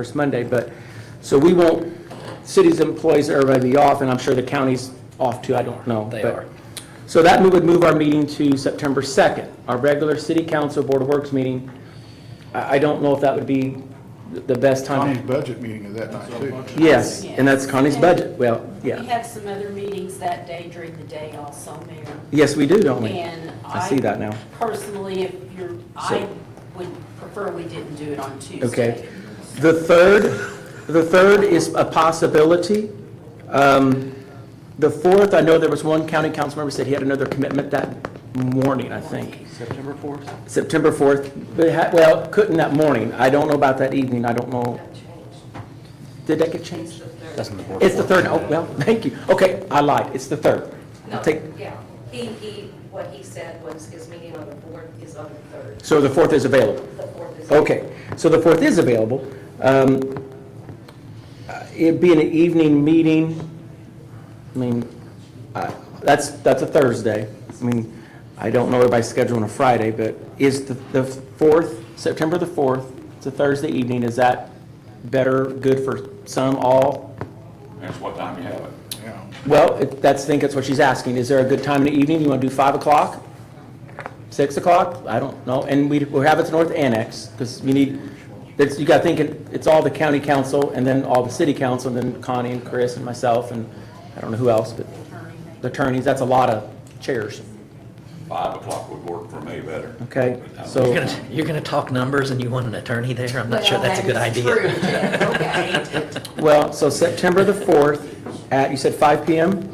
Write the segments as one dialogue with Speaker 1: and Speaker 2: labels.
Speaker 1: first Monday, but, so we won't, city's employees, everybody be off, and I'm sure the county's off too, I don't know.
Speaker 2: They
Speaker 1: but-
Speaker 2: are.
Speaker 1: So that would move our meeting to September 2nd, our regular city council Board of Works meeting. I, I don't know if that would be the best
Speaker 3: Connie's
Speaker 1: time.
Speaker 3: budget meeting is that night too.
Speaker 1: Yes, and that's Connie's budget, well,
Speaker 4: We
Speaker 1: yeah.
Speaker 4: have some other meetings that day during the day also, Mayor.
Speaker 1: Yes, we do, don't we?
Speaker 4: And
Speaker 1: I see that now.
Speaker 4: Personally, if you're, I would prefer we didn't do it on Tuesday.
Speaker 1: Okay. The third, the third is a possibility. Um, The fourth, I know there was one county council member said he had another commitment that morning, I think.
Speaker 2: September 4th?
Speaker 1: September 4th, but ha- well, couldn't that morning. I don't know about that evening, I don't know. Did that get changed?
Speaker 2: That's on the board.
Speaker 1: It's the third, oh, well, thank you. Okay, I lied, it's the third.
Speaker 5: No,
Speaker 1: Take-
Speaker 5: yeah, he, he, what he said was his meeting on the fourth is on the third,
Speaker 1: So the fourth is available?
Speaker 5: the fourth is.
Speaker 1: Okay, so the 4th is available. Um, uh, It'd be an evening meeting. I mean, I- that's, that's a Thursday. I mean, I don't know everybody's schedule on a Friday, but is the the 4th, September the 4th, it's a Thursday evening, is that better, good for some, all?
Speaker 6: That's what time you have it.
Speaker 3: Yeah.
Speaker 1: Well, it- that's, I think that's what she's asking. Is there a good time in the evening? You want to do 5 o'clock? 6 o'clock? I don't know. And we, we'll have it to North Annex, because you need, that's, you got to think, it- it's all the county council, and then all the city council, and then Connie and Chris and myself, and I don't know who else, but the attorneys, that's a lot of chairs,
Speaker 6: Five o'clock would work for me better.
Speaker 1: okay?
Speaker 2: You're
Speaker 1: So,
Speaker 2: gonna, you're gonna talk numbers and you want an attorney there? I'm not sure
Speaker 4: Well,
Speaker 2: that's a
Speaker 4: that
Speaker 2: good
Speaker 4: is
Speaker 2: idea.
Speaker 4: uh, true, Jeff. Okay.
Speaker 1: well, so September the 4th, at, you said 5 PM?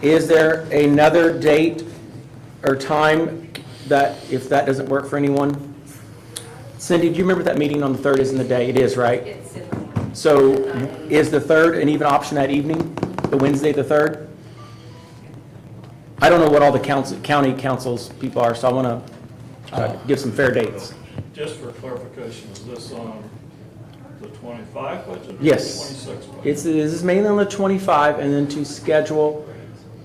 Speaker 1: Is there another date or time that, if that doesn't work for anyone? Cindy, do you remember that meeting on the 3rd is in the day? It is, right?
Speaker 5: It's in the morning.
Speaker 1: So is the 3rd an even option that evening, the Wednesday, the 3rd? I don't know what all the council, county councils people are, so I want to give some fair dates.
Speaker 7: Just for clarification, is this on the 25 budget or the
Speaker 1: Yes.
Speaker 7: 26 budget?
Speaker 1: It's, this is mainly on the 25, and then to schedule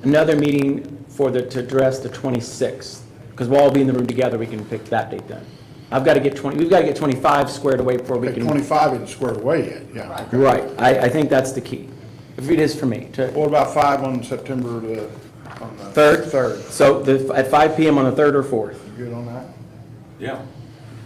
Speaker 1: another meeting for the, to address the 26th, because we'll all be in the room together, we can pick that date then. I've got to get 20, we've got to get 25 squared away before we
Speaker 3: Okay,
Speaker 1: can.
Speaker 3: Twenty-five isn't squared away yet, yeah. okay.
Speaker 1: Right, I, I think that's the key, if it is for me, to,
Speaker 3: What about five on September the? on the
Speaker 1: Third?
Speaker 3: Third.
Speaker 1: so the, at 5 PM on the 3rd or 4th.
Speaker 3: You good on that?
Speaker 6: Yeah.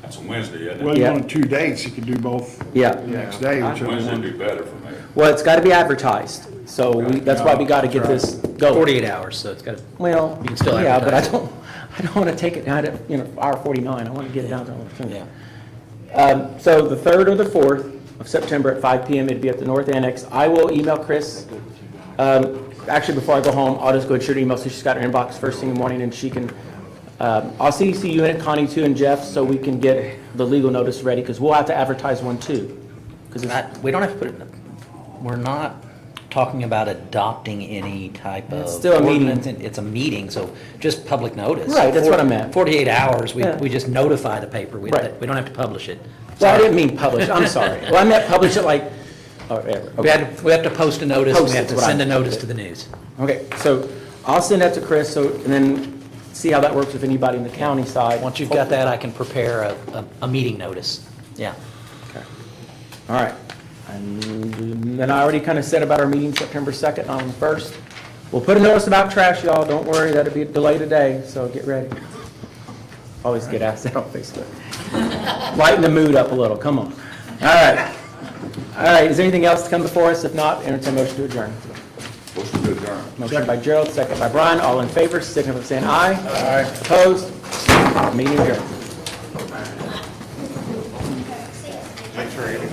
Speaker 6: That's a Wednesday, isn't
Speaker 3: Well,
Speaker 6: it?
Speaker 3: you
Speaker 1: Yeah.
Speaker 3: wanted two dates, you could do both.
Speaker 1: Yeah.
Speaker 3: The next day, whichever
Speaker 6: Wednesday would
Speaker 3: one.
Speaker 6: be better for me.
Speaker 1: Well, it's got to be advertised, so we, that's why we got to get this going.
Speaker 2: 48 hours, so it's got,
Speaker 1: Well,
Speaker 2: You can still
Speaker 1: yeah, but I
Speaker 2: advertise it.
Speaker 1: don't, I don't want to take it down to, you know, hour 49, I want to get it down to hour 49.
Speaker 2: yeah.
Speaker 1: Um, So the 3rd or the 4th of September at 5 PM, it'd be at the North Annex. I will email Chris. Um, Actually, before I go home, I'll just go and shoot her email, so she's got her inbox first thing in the morning, and she can, um, I'll CC you and Connie too and Jeff, so we can get the legal notice ready, because we'll have to advertise one too. Because it's,
Speaker 2: Not- We don't have to put it, in the- we're not talking about adopting any type of.
Speaker 1: It's still a meeting.
Speaker 2: ordinance, and It's a meeting, so just public notice.
Speaker 1: Right, that's what I
Speaker 2: Forty-
Speaker 1: meant.
Speaker 2: 48 hours, we,
Speaker 1: Yeah.
Speaker 2: we just notify the paper. We,
Speaker 1: Right.
Speaker 2: we don't have to publish it.
Speaker 1: well, I didn't mean publish, I'm sorry. Well, I meant publish it like, or whatever.
Speaker 2: We have, to- we have to post a notice,
Speaker 1: Post
Speaker 2: we have
Speaker 1: is
Speaker 2: to
Speaker 1: what I
Speaker 2: send a
Speaker 1: meant.
Speaker 2: notice to the news.
Speaker 1: Okay, so I'll send that to Chris, so, and then see how that works with anybody in the county side.
Speaker 2: Once you've got that, I can prepare a, a, a meeting notice. Yeah.
Speaker 1: All right. And then I already kind of said about our meeting September 2nd on the 1st. We'll put a notice about trash, y'all. Don't worry, that'll be a delay today, so get ready. Always get asked that on Facebook. Lighten the mood up a little, come on. All right. All right, is there anything else to come before us? If not, entertain a motion to adjourn.
Speaker 6: What's the good term?
Speaker 1: Motion by Gerald, second by Brian. All in favor, signify by saying aye. Aye. Opposed? Meeting adjourned.